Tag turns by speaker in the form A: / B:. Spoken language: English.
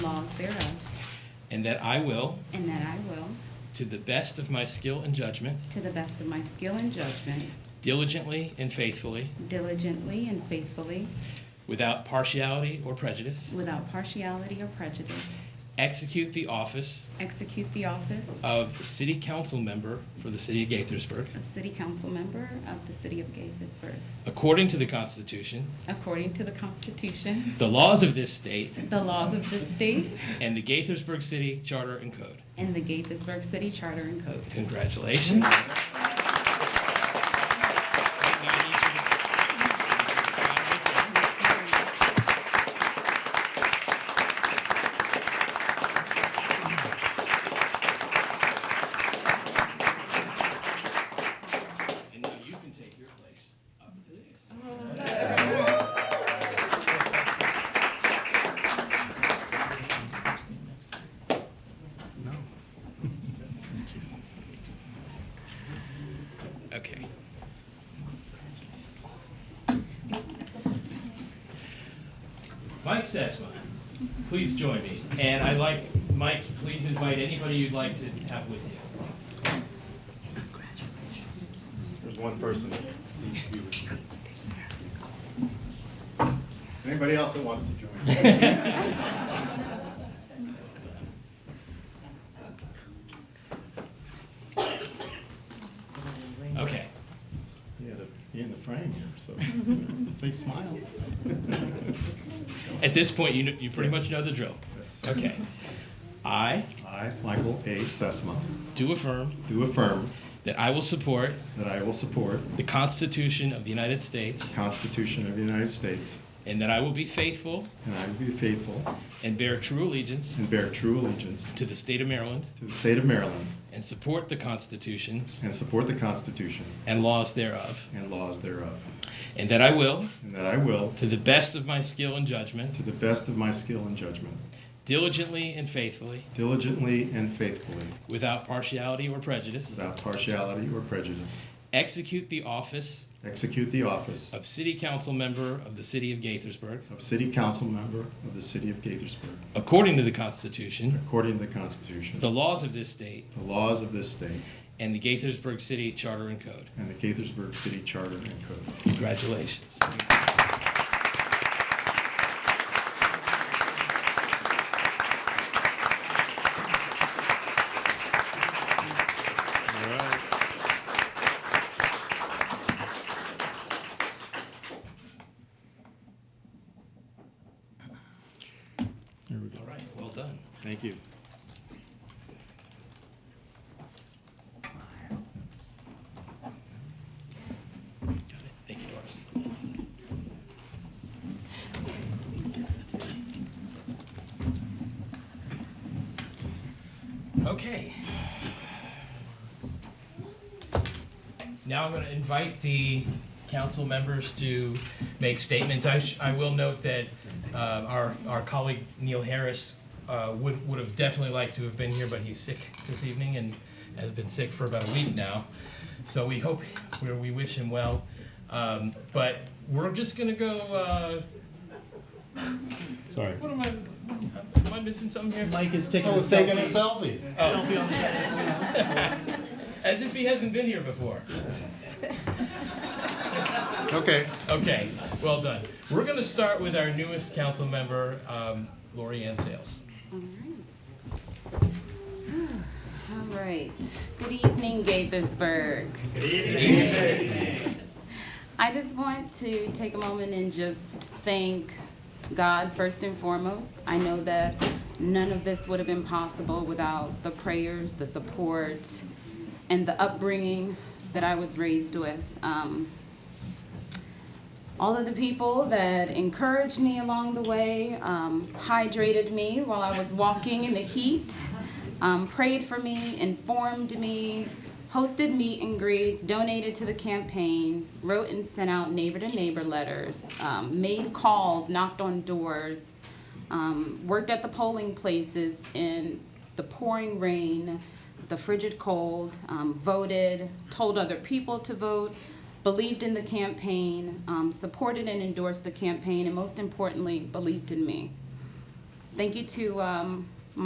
A: laws thereof,
B: and that I will,
A: and that I will,
B: to the best of my skill and judgment,
A: to the best of my skill and judgment,
B: diligently and faithfully,
A: diligently and faithfully,
B: without partiality or prejudice,
A: without partiality or prejudice,
B: execute the office
A: execute the office
B: of City Council Member for the City of Gaithersburg,
A: of City Council Member of the City of Gaithersburg,
B: according to the Constitution,
A: according to the Constitution,
B: the laws of this state,
A: the laws of this state,
B: and the Gaithersburg City Charter and Code.
A: and the Gaithersburg City Charter and Code.
B: Congratulations. And now you can take your place up at the dais. Okay. Mike Sesma, please join me. And I'd like, Mike, please invite anybody you'd like to have with you.
C: There's one person that needs to be with me. Anybody else that wants to join?
B: Okay.
C: Yeah, to be in the frame here, so they smile.
B: At this point, you, kn- you pretty much know the drill.
C: Yes.
B: Okay. I
C: I, Michael A. Sesma,
B: do affirm
C: do affirm
B: that I will support
C: that I will support
B: the Constitution of the United States
C: the Constitution of the United States,
B: and that I will be faithful
C: and I will be faithful
B: and bear true allegiance
C: and bear true allegiance
B: to the state of Maryland
C: to the state of Maryland,
B: and support the Constitution
C: and support the Constitution
B: and laws thereof.
C: and laws thereof,
B: And that I will,
C: and that I will,
B: to the best of my skill and judgment,
C: to the best of my skill and judgment,
B: diligently and faithfully,
C: diligently and faithfully,
B: without partiality or prejudice,
C: without partiality or prejudice,
B: execute the office
C: execute the office
B: of City Council Member of the City of Gaithersburg
C: of City Council Member of the City of Gaithersburg,
B: according to the Constitution,
C: according to the Constitution,
B: the laws of this state,
C: the laws of this state,
B: and the Gaithersburg City Charter and Code.
C: and the Gaithersburg City Charter and Code.
B: Congratulations.
C: There we go.
B: All right, well done.
C: Thank you.
B: Got it. Thank you, Doris. Okay. Now I'm going to invite the council members to make statements. I, sh- I will note that uh, our, our colleague Neil Harris uh, would, would have definitely liked to have been here, but he's sick this evening and has been sick for about a week now. So we hope, we we wish him well. Um, But we're just going to go, uh,
C: Sorry.
B: what am I, am I missing something here? Mike is taking
C: selfie.
B: As if he hasn't been here before.
C: Okay.
B: Okay, well done. We're going to start with our newest council member, um, Lori Ann Sales.
A: All right. All right. Good evening, Gaithersburg. Good evening. I just want to take a moment and just thank God first and foremost. I know that none of this would have been possible without the prayers, the support, and the upbringing that I was raised with. Um, all of the people that encouraged me along the way, um, hydrated me while I was walking in the heat, um, prayed for me, informed me, hosted meet and greets, donated to the campaign, wrote and sent out neighbor to neighbor letters, um, made calls, knocked on doors, um, worked at the polling places in the pouring rain, the frigid cold, um, voted, told other people to vote, believed in the campaign, um, supported and endorsed the campaign, and most importantly, believed in me. Thank you to um,